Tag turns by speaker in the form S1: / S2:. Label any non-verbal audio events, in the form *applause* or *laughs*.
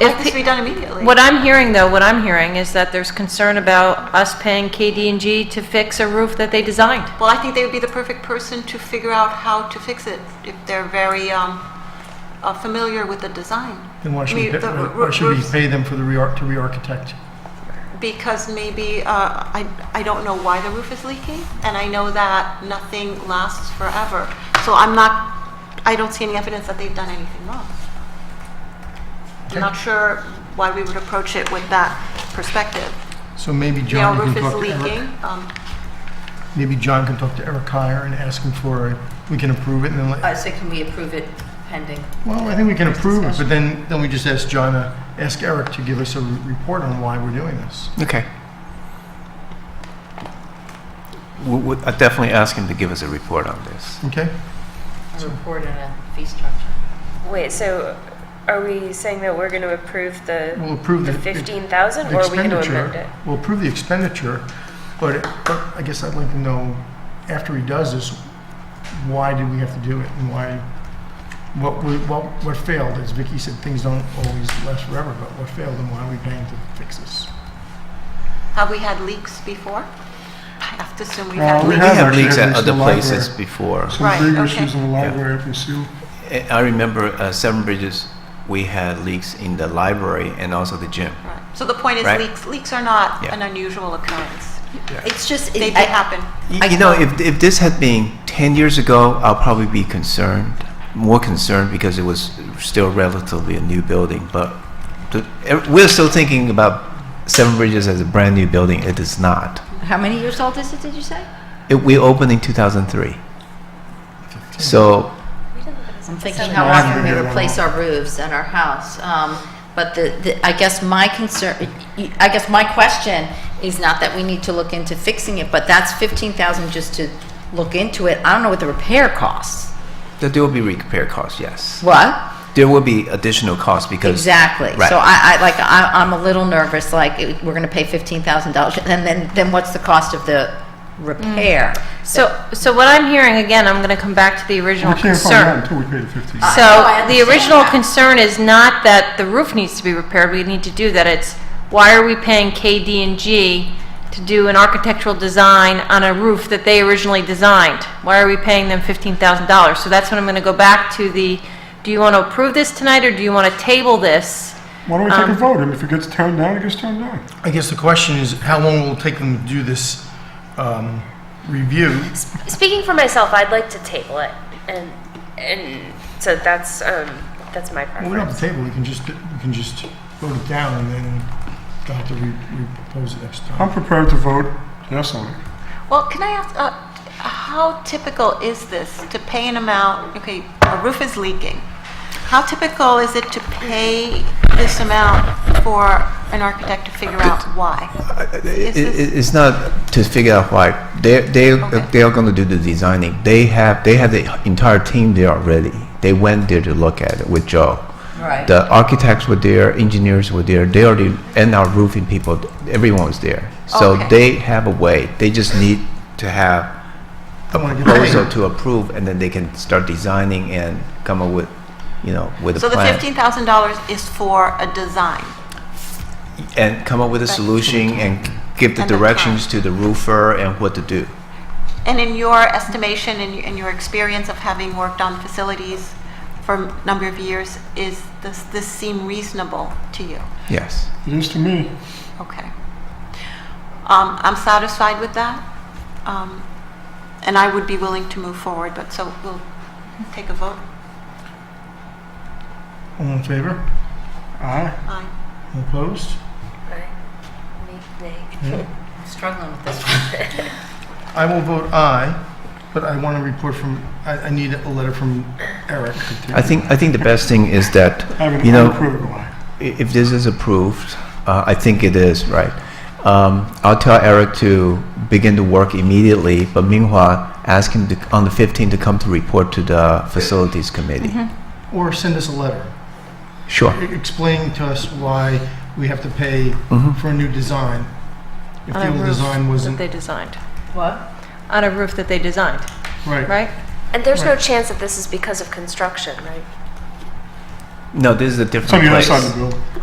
S1: if
S2: It needs to be done immediately.
S1: What I'm hearing, though, what I'm hearing is that there's concern about us paying KD&G to fix a roof that they designed.
S2: Well, I think they would be the perfect person to figure out how to fix it if they're very um, uh, familiar with the design.
S3: Then why
S2: I
S3: should
S2: mean,
S3: we, pay-
S2: the roo-
S3: why should we
S2: roofs-
S3: pay them for the rear, to re-architect?
S2: Because maybe, uh, I, I don't know why the roof is leaking, and I know that nothing lasts forever. So I'm not, I don't see any evidence that they've done anything wrong. I'm not sure why we would approach it with that perspective.
S3: So maybe
S2: You know,
S3: John
S2: roof
S3: can
S2: is
S3: talk to Eric.
S2: leaking. um,
S3: Maybe John can talk to Eric Heyer and ask him for, a- we can approve it and then, let-
S4: I say, can we approve it pending?
S3: well, I think we can approve it, but
S4: discussion.
S3: then, then we just ask John, to ask Eric to give us a re- report on why we're doing this.
S5: Okay. We, we, I definitely ask him to give us a report on this.
S3: Okay?
S4: A report and a fee structure?
S6: Wait, so are we saying that we're going to approve the,
S3: We'll approve
S6: the
S3: the- the-
S6: 15,000
S3: The
S6: or are we going to
S3: expenditure-
S6: amend it?
S3: We'll approve the expenditure, but, but I guess I'd like to know, after he does this, why did we have to do it and why, what, we- what, what failed? As Vicky said, things don't always last forever, but what failed and why are we paying to fix this?
S2: Have we had leaks before? I have to assume we've
S3: Uh,
S2: had
S3: we
S5: We
S2: leaks.
S3: have
S5: had
S3: actually
S5: leaks
S3: had
S5: at
S3: leaks in
S5: other
S3: the
S5: places
S3: library.
S5: before.
S2: Right, big okay. issues
S3: in the
S5: library
S3: if you see.
S5: I I remember uh, Seven Bridges, we had leaks in the library and also the gym.
S2: Right. So the point is
S5: Right.
S2: leaks, leaks are not
S5: Yeah.
S2: an unusual occurrence.
S4: It's just,
S2: They do happen.
S5: Y- You know, if, if this had been 10 years ago, I'll probably be concerned, more concerned because it was still relatively a new building. But the, ev- we're still thinking about Seven Bridges as a brand new building. It is not.
S7: How many years old is it, did you say?
S5: It, we opened in 2003. So
S7: I'm thinking
S3: So
S7: how
S3: that's
S7: often we
S3: gonna be a
S7: replace
S3: long-
S7: our roofs at our house. Um, But the, the- I guess my concern, I guess my question is not that we need to look into fixing it, but that's 15,000 just to look into it. I don't know what the repair costs.
S5: that there will be repair costs, yes.
S7: What?
S5: There will be additional costs because.
S7: Exactly.
S5: Right.
S7: So I, I, like, I, I'm a little nervous, like, it- we're gonna pay fifteen thousand dollars, and then, then what's the cost of the repair?
S4: Mm.
S1: So, so what I'm hearing, again, I'm going to come back to the original concern.
S3: until we pay the fifteen.
S1: So
S7: I
S1: the
S7: understand
S1: original
S7: that.
S1: concern is not that the roof needs to be repaired, we need to do that, it's why are we paying KD&G to do an architectural design on a roof that they originally designed? Why are we paying them $15,000? So that's when I'm going to go back to the, do you want to approve this tonight, or do you want to table this?
S8: Why don't we take a vote? And if it gets turned down, it gets turned down.
S3: I guess the question is, how long will it take them to do this um, review?
S6: Speaking for myself, I'd like to table it. And, and so that's, um, that's my
S3: Well, we don't have
S6: preference.
S3: the table, we can just, we can just vote it down and then they'll have to re- re-propose it next
S8: I'm
S3: time.
S8: prepared to vote yes on it.
S2: Well, can I ask, uh, how typical is this to pay an amount, okay, a roof is leaking. How typical is it to pay this amount for an architect to figure out why?
S5: It,
S2: this-
S5: it, it's not to figure out why they they
S2: Okay.
S5: they are going to do the designing. They have they have the entire team there already. They went there to look at it with Joe.
S7: Right.
S5: The architects were there, engineers were there. They already and our roofing people, everyone was there. So
S2: Okay.
S5: they have a way. They just need to have a
S3: wanna get
S5: proposal
S3: paid.
S5: to approve, and then they can start designing and come up with, you know, with
S2: So
S5: a
S2: the
S5: plan
S2: $15,000 is for a design.
S5: and come up with a
S2: Right.
S5: solution and give the
S2: And the plan.
S5: directions to the roofer and what to do.
S2: And in your estimation and in your experience of having worked on facilities for a number of years, is this, this seem reasonable to you?
S5: Yes.
S8: It is to me.
S2: Okay. Um, I'm satisfied with that. Um, and I would be willing to move forward, but so we'll take a vote.
S3: All in favor?
S8: Aye.
S2: Aye.
S3: All Opposed?
S7: I'm struggling with this one.
S3: *laughs* I will vote aye, but I want a report from, I, I need a letter from Eric.
S5: I think, I think the best thing is that,
S8: I have an
S5: you know,
S8: unapproved one.
S5: i- if this is approved, uh, I think it is, right? Um, I'll tell Eric to begin the work immediately, but meanwhile, ask him to, on the 15th to come to report to the facilities committee.
S3: Or send us a letter
S5: Sure.
S3: e- explaining to us why we have to pay
S5: Mm-hmm.
S3: for a new design. If
S1: On
S3: the
S1: a
S3: old
S1: roof
S3: design
S1: that
S3: wasn't,
S1: they designed,
S7: What?
S1: on a roof that they designed,
S3: right.
S1: right?
S6: And there's no chance that this is because of construction, right?
S5: No, this is a
S8: It's on
S5: different
S8: the other
S5: place.
S8: side of the building.